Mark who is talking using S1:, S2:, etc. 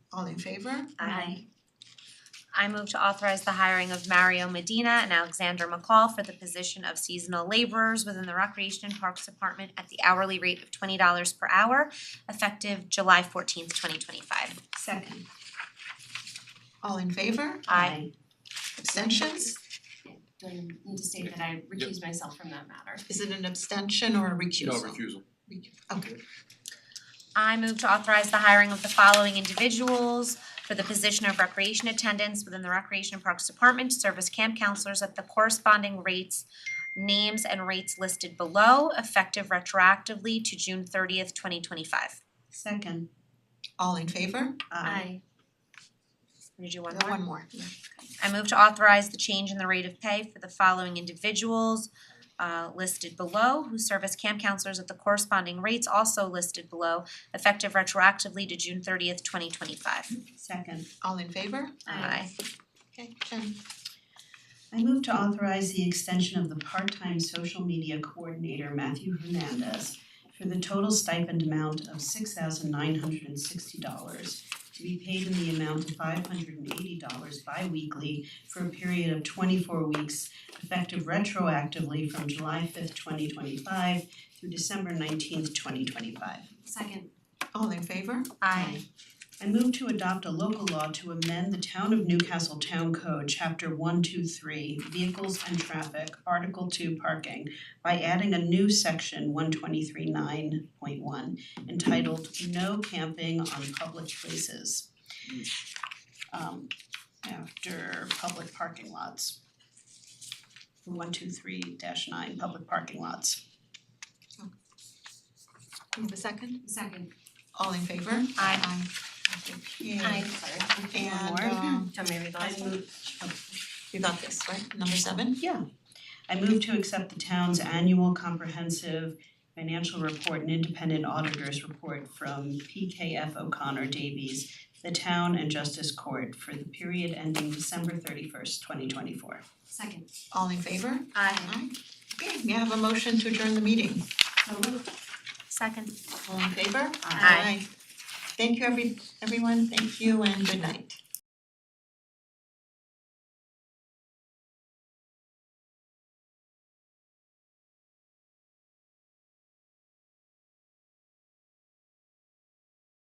S1: All in favor?
S2: Aye.
S3: Um, I move to authorize the hiring of Mario Medina and Alexander McCall for the position of seasonal laborers within the Recreation and Parks Department at the hourly rate of twenty dollars per hour effective July fourteenth, twenty twenty five.
S2: Second.
S1: All in favor?
S3: Aye.
S1: Abstentions?
S4: Do I need to state that I recuse myself from that matter?
S1: Is it an abstention or a
S5: No
S1: recusal?
S5: refusal.
S1: Recu- Okay,
S3: I move to authorize the hiring of the following individuals for the position of recreation attendants within the Recreation and Parks Department to serve as camp counselors at the corresponding rates, names and rates listed below effective retroactively to June thirtieth, twenty twenty five.
S2: Second.
S1: all in favor?
S3: Did you
S1: Uh,
S3: want more?
S1: One more, yeah.
S3: I move to authorize the change in the rate of pay for the following individuals uh listed below who serve as camp counselors at the corresponding rates also listed below effective retroactively to June thirtieth, twenty twenty five.
S2: Second.
S1: All in favor?
S3: Aye.
S1: Okay, Jen,
S2: I move to authorize the extension of the part-time social media coordinator Matthew Hernandez for the total stipend amount of six thousand nine hundred and sixty dollars to be paid in the amount of five hundred and eighty dollars bi-weekly for a period of twenty-four weeks effective retroactively from July fifth, twenty twenty-five through December nineteenth, twenty twenty-five.
S4: Second,
S1: all in favor?
S3: Aye.
S2: I move to adopt a local law to amend the Town of Newcastle Town Code, Chapter one, two, three, Vehicles and Traffic, Article two, Parking, by adding a new section one twenty-three nine point one entitled No Camping on Public Places. Um, after public parking lots. One, two, three dash nine, public parking lots.
S1: You have a second?
S4: second,
S1: All in favor? Aye. Aye. Okay,
S4: aye, sorry.
S1: And
S2: more.
S1: um,
S4: Tell me the
S2: I
S4: last
S2: move
S4: one.
S1: you got this, right? Number seven?
S2: Yeah. I move to accept the town's annual comprehensive financial report and independent auditors report from PKF O'Connor Davies, the town and justice court for the period ending December thirty first, twenty twenty four.
S4: Second,
S1: All in favor?
S3: Aye.
S1: Aye. Okay, may I have a motion to adjourn the meeting?
S4: so moved.
S3: Second.
S1: All in favor?
S3: Aye.
S1: Thank you, every everyone, thank you and good night.